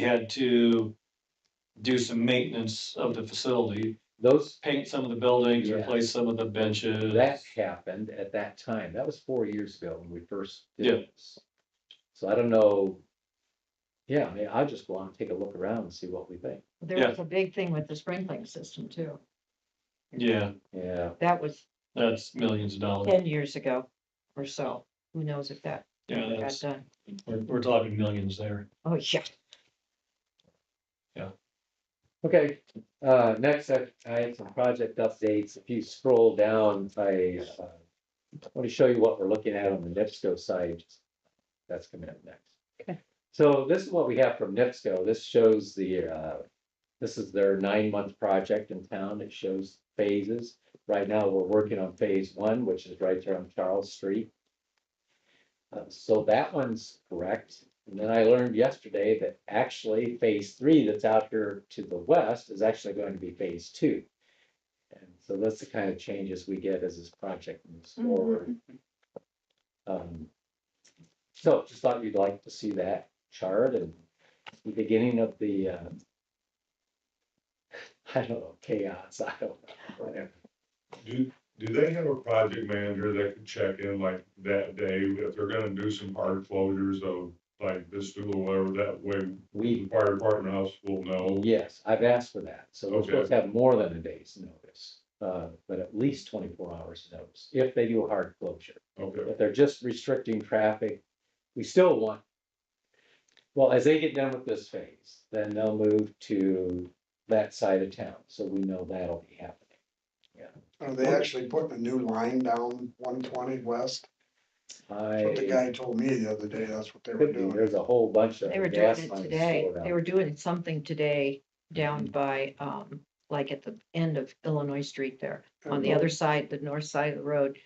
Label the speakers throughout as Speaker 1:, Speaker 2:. Speaker 1: had to do some maintenance of the facility,
Speaker 2: Those,
Speaker 1: paint some of the buildings,
Speaker 2: Yeah.
Speaker 1: replace some of the benches.
Speaker 2: that happened at that time. That was four years ago when we first
Speaker 1: Yeah.
Speaker 2: did this. So I don't know. Yeah, I mean, I'll just go on and take a look around and see what we think.
Speaker 1: Yeah.
Speaker 3: There was a big thing with the sprinkling system too.
Speaker 1: Yeah,
Speaker 2: Yeah,
Speaker 3: That was
Speaker 1: that's millions of dollars.
Speaker 3: ten years ago or so. Who knows if that
Speaker 1: Yeah,
Speaker 3: ever got
Speaker 1: that's,
Speaker 3: done?
Speaker 1: we're, we're talking millions there.
Speaker 3: Oh, yeah.
Speaker 2: okay. Uh, next, I, I had some project updates. If you scroll down, I, uh, want to show you what we're looking at on the NIPSCO side. That's coming up next.
Speaker 3: Okay.
Speaker 2: So this is what we have from NIPSCO. This shows the, uh, this is their nine-month project in town. It shows phases. Right now, we're working on phase one, which is right there on Charles Street. Uh, so that one's correct. And then I learned yesterday that actually phase three that's out here to the west is actually going to be phase two. And so that's the kind of changes we get as this project moves forward. Um, so just thought you'd like to see that chart and the beginning of the, uh, I don't know, chaos, I don't know, whatever.
Speaker 4: Do, do they have a project manager that could check in like that day if they're gonna do some hard closures of like this school or whatever, that way the
Speaker 2: We,
Speaker 4: fire department house will know?
Speaker 2: yes, I've asked for that. So we're supposed to have more than a day's notice, uh, but at least twenty-four hours notice if they do a hard closure.
Speaker 4: Okay,
Speaker 2: If they're just restricting traffic, we still want. Well, as they get done with this phase, then they'll move to that side of town, so we know that'll be happening.
Speaker 5: Are they actually putting a new line down one twenty west? That's what the
Speaker 2: I,
Speaker 5: guy told me the other day, that's what they were
Speaker 2: could be,
Speaker 5: doing.
Speaker 2: there's a whole bunch of.
Speaker 3: They were doing
Speaker 2: gas
Speaker 3: it
Speaker 2: lines
Speaker 3: today.
Speaker 2: slowed down. Mm-hmm.
Speaker 3: They were doing something today down by, um, like at the end of Illinois Street there, on
Speaker 2: Mm-hmm.
Speaker 3: the other side, the north side of the road.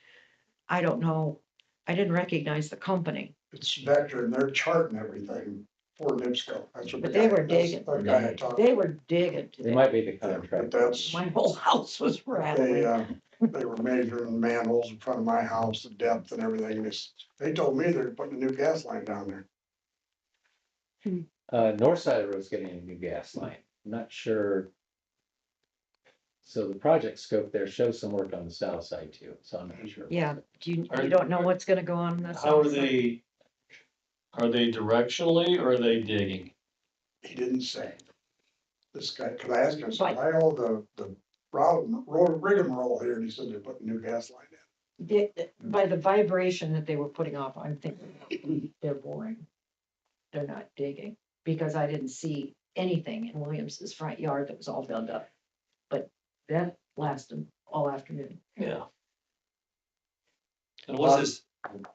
Speaker 3: I don't know. I didn't recognize the company.
Speaker 5: It's Vector and they're charting everything for NIPSCO. That's what the
Speaker 3: But they
Speaker 5: guy-
Speaker 3: were
Speaker 5: that's
Speaker 3: digging.
Speaker 5: The guy I talked
Speaker 3: They
Speaker 5: to,
Speaker 3: were digging
Speaker 2: They
Speaker 3: today.
Speaker 2: might be the
Speaker 5: Yeah, but
Speaker 2: contract.
Speaker 5: that's,
Speaker 3: My whole house was
Speaker 5: they,
Speaker 3: rattling.
Speaker 5: uh, they were measuring manholes in front of my house, the depth and everything. And it's- They told me they're putting a new gas line down there.
Speaker 2: Uh, north side of the road's getting a new gas line, not sure. So the project scope there shows some work on the south side too, so I'm not sure.
Speaker 3: Yeah, do you,
Speaker 1: Are-
Speaker 3: you don't know what's gonna go on in this.
Speaker 1: How are
Speaker 3: house?
Speaker 1: they, are they directionally or are they digging?
Speaker 5: He didn't say. This guy, could I asked him, I said, why all the, the road, road rigmarole here? And he said they're putting a new gas line in.
Speaker 3: Di- By the vibration that they were putting off, I'm thinking they're boring. They're not digging, because I didn't see anything in Williams's front yard that was all filled up. But that lasted all afternoon.
Speaker 1: Yeah. And what's this,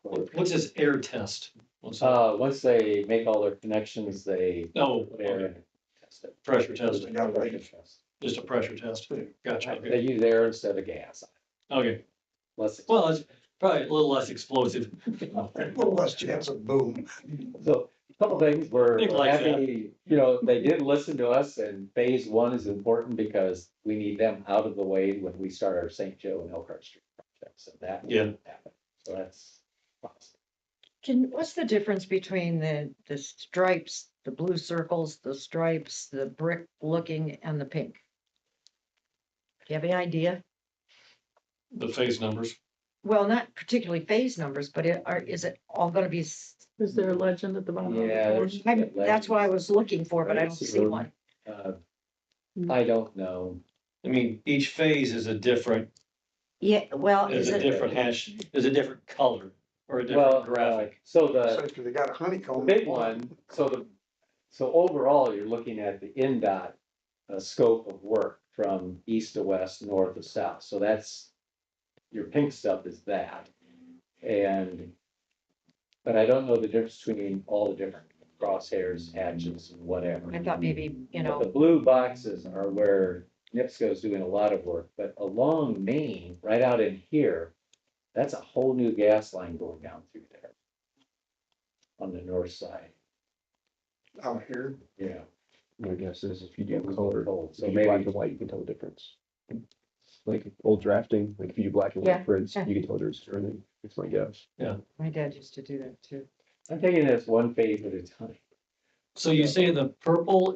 Speaker 2: But,
Speaker 1: what's this air test? What's that?
Speaker 2: Um, Uh, once they make all their connections, they.
Speaker 1: No,
Speaker 2: put air
Speaker 1: okay,
Speaker 2: in, test it.
Speaker 1: pressure test,
Speaker 5: Yeah, like-
Speaker 2: Pressure test.
Speaker 1: just a pressure test. Gotcha, okay.
Speaker 2: They use air instead of gas.
Speaker 1: Okay,
Speaker 2: Less,
Speaker 1: well, it's probably a little less explosive.
Speaker 5: A little less chance of boom.
Speaker 2: so a couple things we're
Speaker 1: Things like that.
Speaker 2: happy, you know, they did listen to us and phase one is important because we need them out of the way when we start our St. Joe and Elkhart Street projects and that. will
Speaker 1: Yeah.
Speaker 2: happen. So that's. awesome.
Speaker 3: Can, what's the difference between the, the stripes, the blue circles, the stripes, the brick looking and the pink? Do you have any idea?
Speaker 1: The phase numbers.
Speaker 3: Well, not particularly phase numbers, but it, are, is it all gonna be s-
Speaker 6: Is there a legend at the bottom? of the
Speaker 2: Yeah,
Speaker 6: board?
Speaker 2: there's-
Speaker 3: I'm- That's what I was looking for, but I
Speaker 2: Right,
Speaker 3: don't
Speaker 2: see
Speaker 3: see
Speaker 2: road.
Speaker 3: one.
Speaker 2: Uh, I don't know.
Speaker 1: I mean, each phase is a different,
Speaker 3: Yeah, well,
Speaker 1: is
Speaker 3: Oh, is
Speaker 1: a
Speaker 3: it,
Speaker 1: different hash, is a different color or a
Speaker 2: Well,
Speaker 1: different graphic.
Speaker 2: uh, So the.
Speaker 5: So if they got a honeycomb.
Speaker 2: Big one, so the, so overall, you're looking at the NDOT uh, scope of work from east to west, north to south, so that's. Your pink stuff is that, and. But I don't know the difference between all the different crosshairs, hatches, and whatever.
Speaker 3: I thought maybe, you
Speaker 2: But The
Speaker 3: know,
Speaker 2: blue boxes are where NIPSCO's doing a lot of work, but along Main, right out in here, that's a whole new gas line going down through there. On the north side,
Speaker 5: Out here,
Speaker 2: yeah.
Speaker 7: My guess is if you
Speaker 2: It
Speaker 7: do
Speaker 2: was
Speaker 7: color,
Speaker 2: cold, so
Speaker 7: if you
Speaker 2: maybe-
Speaker 7: black and white, you can tell the difference. Like old drafting, like if you do black and
Speaker 3: Yeah,
Speaker 7: white prints,
Speaker 3: yeah.
Speaker 7: you can tell there's turning, it's my guess.
Speaker 3: my dad used to do that too.
Speaker 2: I'm taking this one phase at a time.
Speaker 1: So you say the purple